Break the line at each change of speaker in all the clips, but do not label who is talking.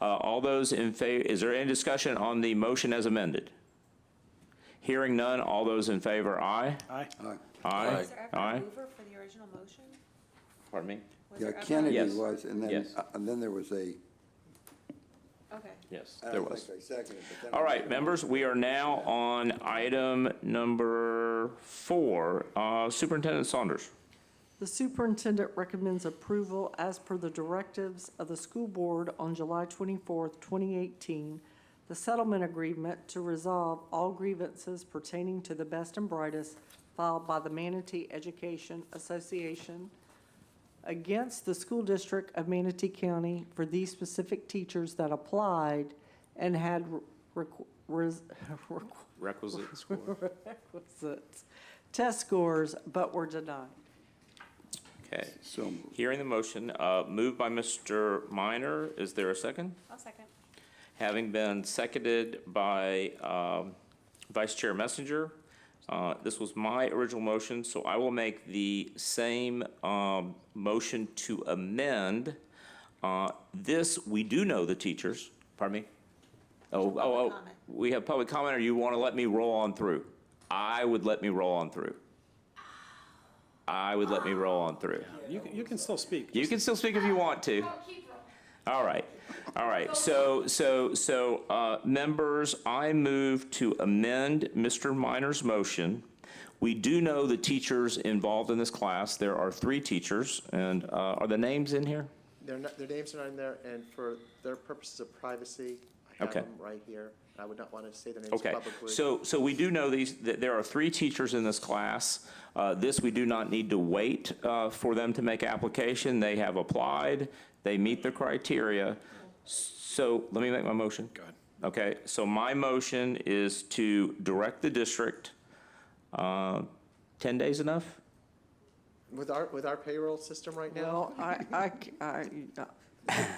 Uh, All those in favor, is there any discussion on the motion as amended? Hearing none, all those in favor, aye?
Aye.
Aye.
Was there ever a
Aye.
mover for the original motion?
Pardon me?
Was
Yeah,
there ever-
Kennedy
Yes.
was, and then,
Yes.
uh, and then there was a,
Okay.
Yes,
I
there
don't
was.
think I seconded, but then. I
All right,
did.
members, we are now on item number four. Uh, Superintendent Saunders.
The superintendent recommends approval as per the directives of the school board on July 24th, 2018, the settlement agreement to resolve all grievances pertaining to the best and brightest filed by the Manatee Education Association against the school district of Manatee County for these specific teachers that applied and had requ- res- requ-
Requisite score.
requisites, test scores, but were denied.
Okay.
So moved.
Hearing the motion, uh, moved by Mr. Minor, is there a second?
I'll second.
Having been seconded by um, Vice Chair Messenger, uh, this was my original motion, so I will make the same um, motion to amend. Uh, This, we do know the teachers, pardon me? Oh, oh, oh,
comment.
we have public comment, or you want to let me roll on through? I would let me roll on through. I would let me roll on through.
You, can- you can still speak.
You can still speak if you want to. All right, all right. So, so, so, uh, members, I move to amend Mr. Minor's motion. We do know the teachers involved in this class. There are three teachers, and uh, are the names in here?
Their, n- their names are not in there, and for their purposes of privacy, I have
Okay.
them right here. I would not want to say their names
Okay,
publicly.
so, so we do know these, that there are three teachers in this class. Uh, This, we do not need to wait uh, for them to make application. They have applied, they meet the criteria. So let me make my motion. Go ahead. Okay, so my motion is to direct the district, uh, 10 days enough?
With our, with our payroll system right now,
Well, I, I c- I-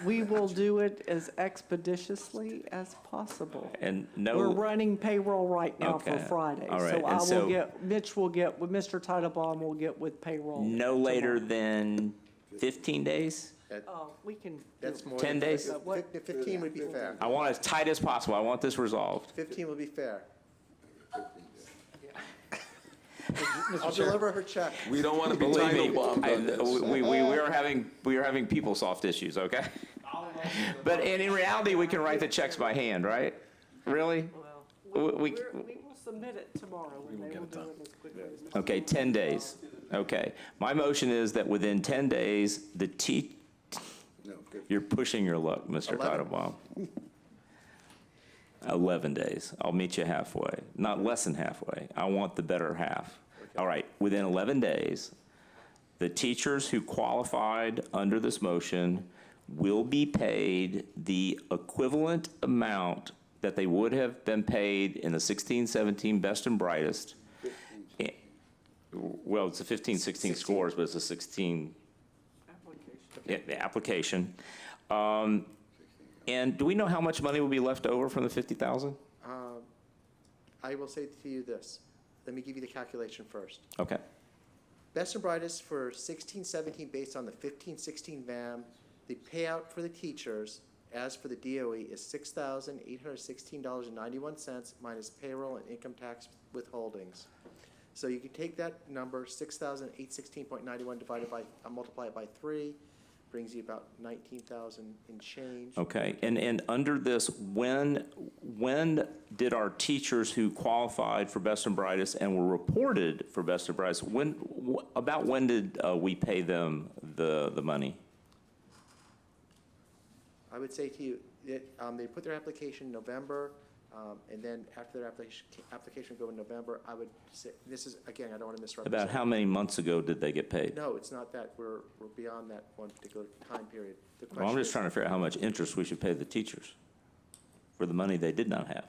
we will do it as expeditiously as possible.
And
We're
no,
running payroll right now for
Okay.
Friday.
All right.
So I
And so-
will get, Mitch will get, with Mr. Titlebaum will get with payroll.
no later
tomorrow.
than 15 days?
Oh, we can. do
that's
it.
more.
10
than-
days?
fif- fif- Fifteen would be fair.
I want it as tight as possible. I want this resolved.
Fifteen would be fair. I'll deliver her check.
We don't want to be
Believe me,
title bombed
I-
on this.
we, we, we are having, we are having people soft issues, okay? But, and in reality, we can write the checks by hand, right? Really?
Well,
We- we-
we're- We will submit it tomorrow and they will do it as quickly as possible.
Okay, 10 days. Okay. My motion is that within 10 days, the T,
No, good.
you're pushing your luck, Mr.
Eleven.
Titlebaum. 11 days. I'll meet you halfway, not less than halfway. I want the better half. All right, within 11 days, the teachers who qualified under this motion will be paid the equivalent amount that they would have been paid in the 16, 17 best and brightest. Eh, Well, it's a 15, 16 scores, but it's a 16 yeah, the application. Um, And do we know how much money will be left over from the 50,000?
Um, I will say to you this, let me give you the calculation first.
Okay,
Best and brightest for sixteen, seventeen, based on the fifteen, sixteen VAM. The payout for the teachers, as for the DOE, is six thousand, eight hundred sixteen dollars and ninety-one cents minus payroll and income tax withholdings. So you can take that number, six thousand, eight sixteen point ninety-one divided by, uh, multiply it by three, brings you about nineteen thousand and change.
okay. And, and under this, when, when did our teachers who qualified for Best and Brightest and were reported for Best and Brightest, when, wh- about when did uh, we pay them the, the money?
I would say to you, that, um, they put their application in November, um, and then after their application, application go in November, I would say, this is, again, I don't want to misrepresent.
About how many months ago did they get paid?
No, it's not that. We're, we're beyond that one particular time period. The
Well, I'm
question
just
is,
trying to figure out how much interest we should pay the teachers for the money they did not have.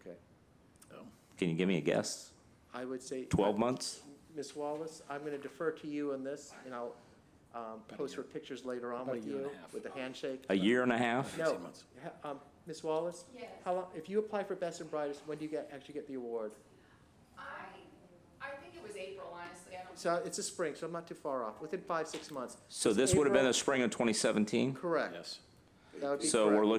okay.
Can you give me a guess?
I would say,
12 months?
Ms. Wallace, I'm going to defer to you on this, and I'll um, post her pictures later on with you, with the handshake.
A year and a half?
No, ha- um, Ms. Wallace? Yes. How long, if you apply for Best and Brightest, when do you get, actually get the award?
I, I think it was April, honestly, I don't.
So it's a spring, so I'm not too far off, within five, six months.
So this would have been the
April-
spring of 2017?
Correct.
Yes.
That would be
So we're
correct.
looking